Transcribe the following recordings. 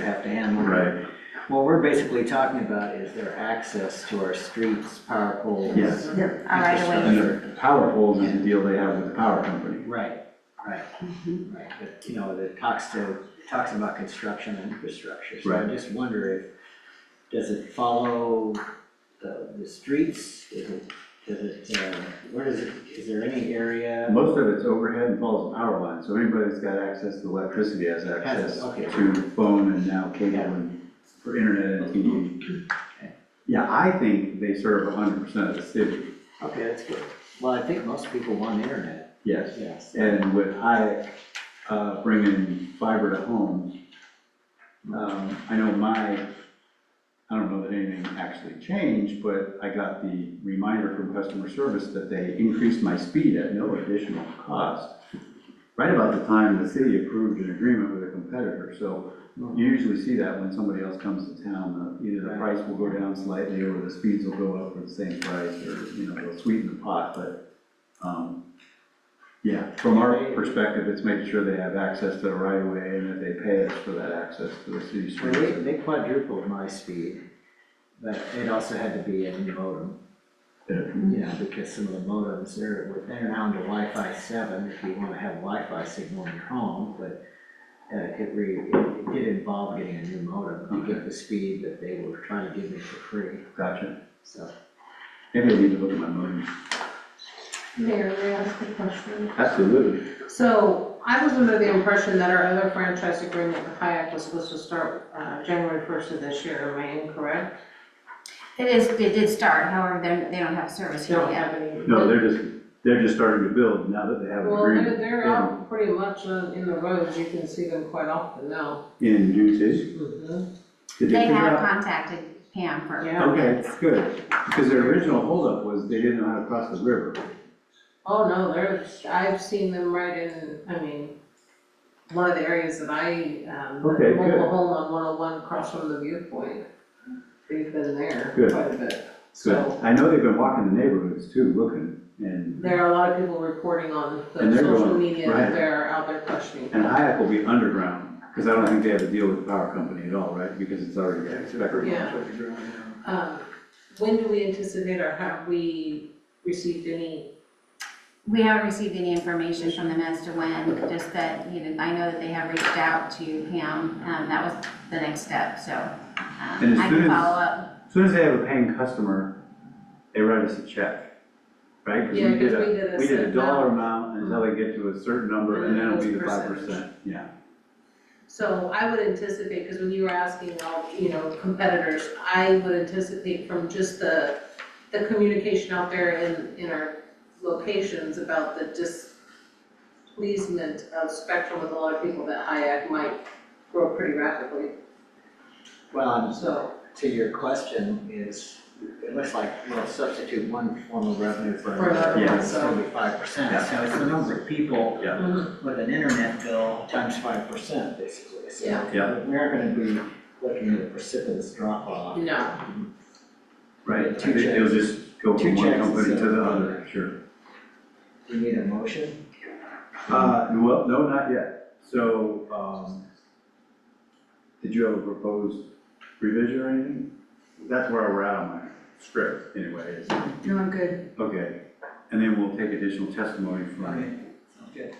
have to handle. Right, What we're basically talking about is their access to our streets, power poles. yes. All right, away. And the power poles is the deal they have with the power company. Right, right, right, but, you know, it talks to, it talks about construction and infrastructure, so I Right. just wonder if, does it follow the, the streets? Does it, does it, uh, where does it, is there any area? Most of it's overhead and follows the power line, so anybody that's got access to electricity has access okay. to phone and now cable and for internet and TV. Yeah, I think they serve hundred percent of the city, Okay, that's good. Well, I think most people want internet, yes. yes. And with Hayek uh, bringing fiber to home, um, I know my, I don't know that anything actually changed, but I got the reminder from customer service that they increased my speed at no additional cost. Right about the time the city approved an agreement with a competitor, so you usually see that when somebody else comes to town, uh, either the price will go down slightly, or the speeds will go up for the same price, or, you know, they'll sweeten the pot, but, um, yeah, from our perspective, it's making sure they have access to the right of way, and that they pay us for that access to the city Well, they, streets. they quadrupled my speed, but it also had to be a new modem. Yeah, because some of the modems, they're, they're now into Wi-Fi seven, if you wanna have Wi-Fi signal in your home, but uh, it re, it- it did involve getting a new modem to get the speed that they were trying to give me for free, Gotcha. so. Maybe I need to look at my money. Mayor, may I ask a question? Absolutely. So I was under the impression that our other franchise agreement with Hayek was supposed to start uh, January 1st of this year, am I incorrect? It is, it did start, however, they're- they don't have service They here Don't yet. have any. No, they're just, they're just starting to build now that they have an Well, they're, agreement. they're out pretty much on- in the roads, you can see them quite often now. In Dune City? Mhm. Did They figure have out- contacted Pam for, Yeah. Okay, good, because their original holdup was they didn't know how to cross the river. Oh, no, there's, I've seen them right in, I mean, one of the areas that I, um, Okay, good. mobile home on 101 across from the viewpoint. They've been there Good. quite a bit, so. So I know they've been walking the neighborhoods too, looking, and, There are a lot of people reporting on the And they're social going, media right. that they're out there questioning. and Hayek will be underground, because I don't think they have to deal with the power company at all, right? Because it's already, it's already Yeah. underground. Um, When do we anticipate or have we received any, we haven't received any information from them as to when, just that, you know, I know that they have reached out to Pam, um, that was the next step, so. And um, as I soon can as- follow up, As Soon as they have a paying customer, they write us a check, right? 'Cause Yeah, 'cause did we did a We did a set dollar amount until they get to a certain number, and then it'll be the five percent, yeah. so I would anticipate, because when you were asking all, you know, competitors, I would anticipate from just the, the communication out there in, in our locations about the displeasement of Spectrum with a lot of people that Hayek might grow pretty rapidly, Well, I'm so. to your question is, it looks like we'll substitute one form of revenue for For another another, one, it's so- gonna be five percent. Yeah. So it's the number of people Yeah. with an internet bill times five percent, basically. So Yeah. Yeah. We aren't gonna be looking at a precipitous drop off. No. Right, Two they- they'll checks. just go Two from one checks company to instead of the one. other, sure. Do you need a motion? Uh, well, no, not yet. So, um, did you have a proposed revision or anything? That's where we're at on my script anyway. is- no, I'm good. Okay, and then we'll take additional testimony from, Okay.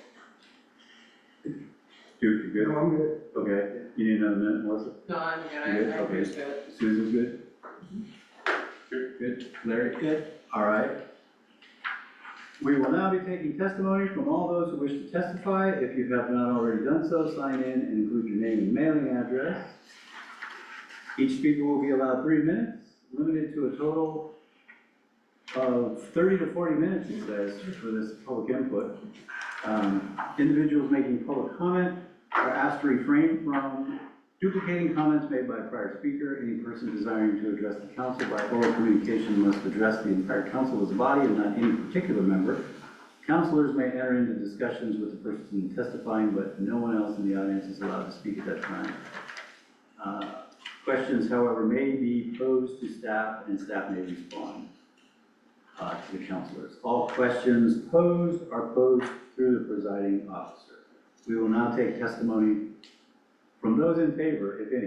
Duke, you good? I'm good. Okay, you need another minute, Melissa? No, I'm good, I, Good, I okay. appreciate it. Susan's good? Good, good. Larry? Good. All right. We will now be taking testimony from all those who wish to testify. If you have not already done so, sign in and include your name and mailing address. Each speaker will be allowed three minutes, limited to a total of thirty to forty minutes, it says, for this public input. Um, Individuals making public comment are asked to refrain from duplicating comments made by a prior speaker. Any person desiring to address the council by oral communication must address the entire council as a body and not any particular member. Counselors may enter into discussions with the person testifying, but no one else in the audience is allowed to speak at that time. Uh, Questions, however, may be posed to staff and staff may respond uh, to the counselors. All questions posed are posed through the presiding officer. We will now take testimony from those in favor, if any,